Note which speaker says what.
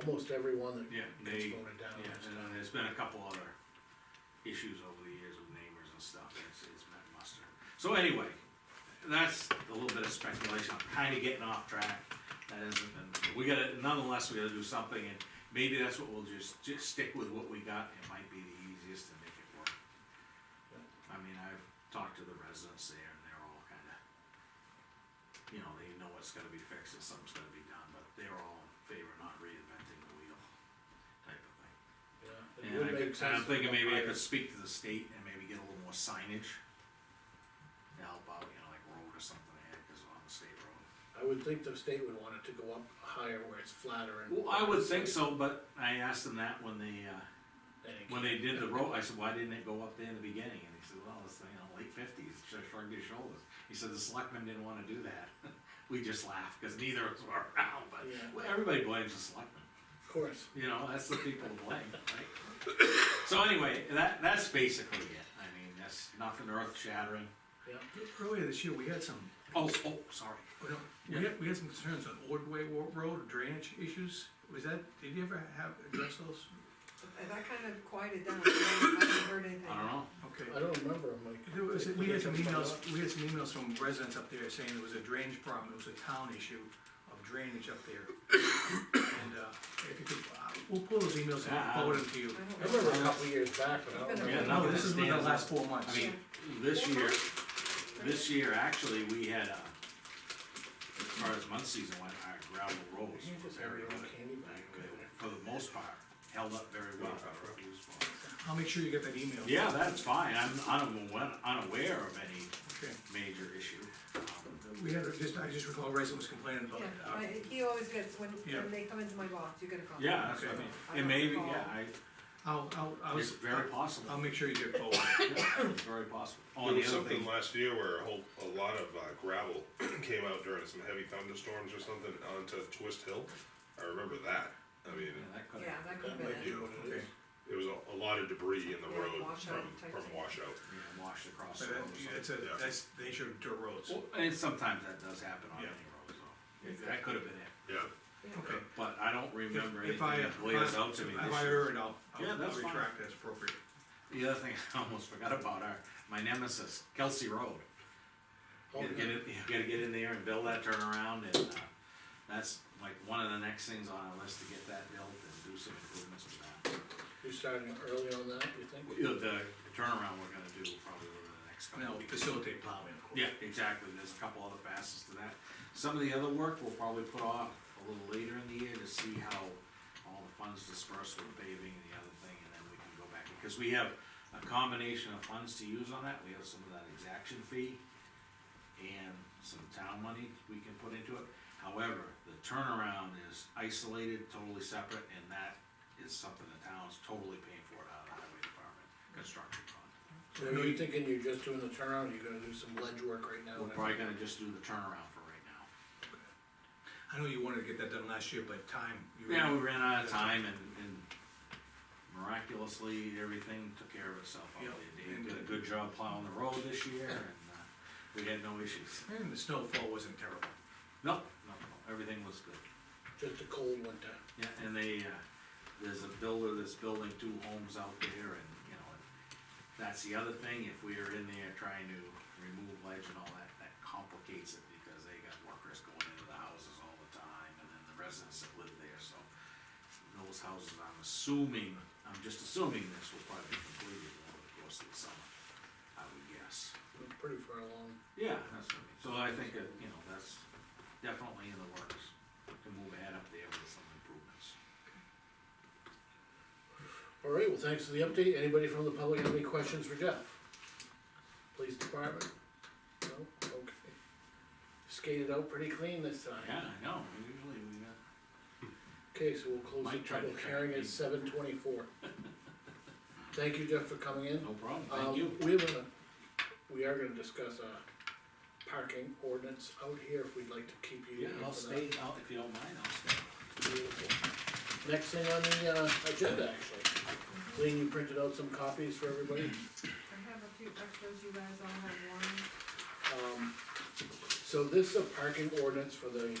Speaker 1: almost everyone that
Speaker 2: Yeah,
Speaker 1: gets
Speaker 2: they,
Speaker 1: voted down.
Speaker 2: yeah, and then there's been a couple other issues over the years with neighbors and stuff, and it's, it's met muster. So anyway, that's a little bit of speculation, I'm kinda getting off track, that hasn't been, we gotta, nonetheless, we gotta do something, and maybe that's what we'll just, just stick with what we got, it might be the easiest to make it work. I mean, I've talked to the residents there, and they're all kinda, you know, they know what's gotta be fixed and something's gotta be done, but they're all in favor of not reinventing the wheel type of thing.
Speaker 1: Yeah, it
Speaker 2: And
Speaker 1: would
Speaker 2: I
Speaker 1: make
Speaker 2: could, and I'm
Speaker 1: sense to
Speaker 2: thinking
Speaker 1: go
Speaker 2: maybe I
Speaker 1: higher.
Speaker 2: could speak to the state and maybe get a little more signage to help out, you know, like road or something ahead, cause on the state road.
Speaker 1: I would think the state would want it to go up higher where it's flatter and.
Speaker 2: Well, I would think so, but I asked them that when they, uh,
Speaker 1: and it-
Speaker 2: when they did the road, I said, why didn't it go up there in the beginning? And he said, well, it's, you know, late fifties, shrugged his shoulders. He said, the selectmen didn't wanna do that. We just laughed, cause neither of us were around, but,
Speaker 1: Yeah.
Speaker 2: well, everybody blames the selectmen.
Speaker 1: Of course,
Speaker 2: You know, that's the people to blame, right? So anyway, that, that's basically it. I mean, that's nothing earth shattering.
Speaker 1: yeah,
Speaker 3: Earlier this year, we had some,
Speaker 2: Oh, oh, sorry.
Speaker 3: we don't- we had, we had some concerns on Ordway Wa- Road drainage issues. Was that, did you ever have, address those?
Speaker 4: That kind of quieted down, I haven't heard anything.
Speaker 2: I don't know.
Speaker 3: Okay.
Speaker 1: I don't remember, I'm like.
Speaker 3: There was, we had some emails, we had some emails from residents up there saying there was a drainage problem, it was a town issue of drainage up there. And, uh, if you could, uh, we'll pull those emails and forward them to you.
Speaker 1: I remember a couple years back, but I don't remember.
Speaker 4: Yeah,
Speaker 2: Yeah,
Speaker 3: No,
Speaker 2: nothing
Speaker 3: this is within the
Speaker 2: stands
Speaker 3: last
Speaker 2: out.
Speaker 3: four months.
Speaker 2: I mean, this year, this year, actually, we had, uh, as far as mud season went, our gravel roads
Speaker 1: You
Speaker 2: were
Speaker 1: just have
Speaker 2: very
Speaker 1: your
Speaker 2: good.
Speaker 1: own candy bar.
Speaker 2: Like, For the most part, held up very well.
Speaker 3: I'll make sure you get that email.
Speaker 2: Yeah, that's fine. I'm unaware, unaware of any
Speaker 3: Okay.
Speaker 2: major issue. Um,
Speaker 3: We had, a- just, I just recall a resident was complaining about,
Speaker 4: Yeah,
Speaker 3: uh,
Speaker 4: I- he always gets, when,
Speaker 3: Yeah.
Speaker 4: when they come into my box, you get a call.
Speaker 2: Yeah, that's what I mean. It may be, yeah, I,
Speaker 3: Uh, I'll, I'll, I um,
Speaker 2: It's
Speaker 3: was.
Speaker 2: very possible.
Speaker 3: I'll make sure you get forward.
Speaker 2: It's very possible. Oh,
Speaker 5: There
Speaker 2: and
Speaker 5: was
Speaker 2: the other
Speaker 5: something
Speaker 2: thing,
Speaker 5: last year where a whole, a lot of uh, gravel came out during some heavy thunderstorms or something onto Twist Hill. I remember that. I mean,
Speaker 2: yeah, that could
Speaker 4: Yeah,
Speaker 2: have,
Speaker 4: that could have
Speaker 1: That
Speaker 4: been
Speaker 1: might be
Speaker 4: it.
Speaker 1: what it
Speaker 3: Okay.
Speaker 1: is.
Speaker 5: it was a, a lot of debris in the
Speaker 4: Yeah,
Speaker 5: road
Speaker 4: washout
Speaker 5: from,
Speaker 4: type
Speaker 5: from
Speaker 4: thing.
Speaker 5: washout.
Speaker 2: you know, washed across
Speaker 3: But
Speaker 2: the road or something.
Speaker 3: that- That's a,
Speaker 5: Yeah.
Speaker 3: that's the nature of dirt roads.
Speaker 2: Well, And sometimes that does happen on any
Speaker 3: Yeah.
Speaker 2: road, so, it- that could have been it,
Speaker 5: Yeah.
Speaker 3: Okay.
Speaker 2: but I don't remember
Speaker 3: If- if I,
Speaker 2: anything
Speaker 3: uh,
Speaker 2: that blazed out to me
Speaker 3: If I
Speaker 2: this year.
Speaker 3: erred, I'll, I'll
Speaker 2: Yeah,
Speaker 3: I'll
Speaker 2: that's fine.
Speaker 3: retract as appropriate.
Speaker 2: The other thing I almost forgot about are, my nemesis, Kelsey Road.
Speaker 1: Oh,
Speaker 2: You gotta get in, you gotta get in there and build that turnaround, and, uh, that's like one of the next things on our list to get that built and do some improvements to that.
Speaker 1: You're starting early on that, you think?
Speaker 2: You know, The turnaround we're gonna do probably over the next
Speaker 3: And
Speaker 2: couple
Speaker 3: I'll
Speaker 2: of weeks.
Speaker 3: facilitate plowing, of course.
Speaker 2: Yeah, exactly, there's a couple other facets to that. Some of the other work we'll probably put off a little later in the year to see how all the funds disperse with paving and the other thing, and then we can go back. Because we have a combination of funds to use on that, we have some of that exaction fee and some town money we can put into it. However, the turnaround is isolated, totally separate, and that is something the town's totally paying for out of the highway department, construction fund.
Speaker 1: So Are you thinking you're just doing the turnaround, or you're gonna do some ledge work right now?
Speaker 2: We're probably gonna just do the turnaround for right now.
Speaker 3: I know you wanted to get that done last year, but time. you were-
Speaker 2: Yeah, we ran out of time and, and miraculously, everything took care of itself. out
Speaker 3: Yep.
Speaker 2: there. Dave did a good job plowing the road this year and, uh, we had no issues.
Speaker 3: And the snowfall wasn't terrible.
Speaker 2: No, no, no, everything was good.
Speaker 1: Just a cold winter.
Speaker 2: Yeah, and they, uh, there's a builder that's building two homes out there and, you know, and that's the other thing, if we are in there trying to remove ledge and all that, that complicates it because they got workers going into the houses all the time and then the residents that live there, so. Those houses, I'm assuming, I'm just assuming this will probably be completed over the course of the summer, I would guess.
Speaker 1: We're pretty far along.
Speaker 2: Yeah, that's what I mean, so I think that, you know, that's definitely in the works, to move ahead up there with some improvements.
Speaker 1: All right, well, thanks for the update. Anybody from the public have any questions for Jeff? Police department? No, okay. Skated out pretty clean this time.
Speaker 2: Yeah, I know, usually we got.
Speaker 1: Okay, so we'll close the
Speaker 2: Mike tried to
Speaker 1: public
Speaker 2: track
Speaker 1: hearing
Speaker 2: me.
Speaker 1: at seven twenty-four. Thank you, Jeff, for coming in.
Speaker 2: No problem,
Speaker 1: Um,
Speaker 2: Oh, thank you.
Speaker 1: We have a, we are gonna discuss a parking ordinance out here if we'd like to keep you.
Speaker 2: Yeah,
Speaker 1: in
Speaker 2: I'll
Speaker 1: for
Speaker 2: stay,
Speaker 1: that.
Speaker 2: I'll, if you don't mind, I'll stay.
Speaker 1: Beautiful. Next thing on the, uh, agenda, actually. Lean, you printed out some copies for everybody.
Speaker 4: I have a few extras, you guys all have one.
Speaker 1: Um, so this is a parking ordinance for the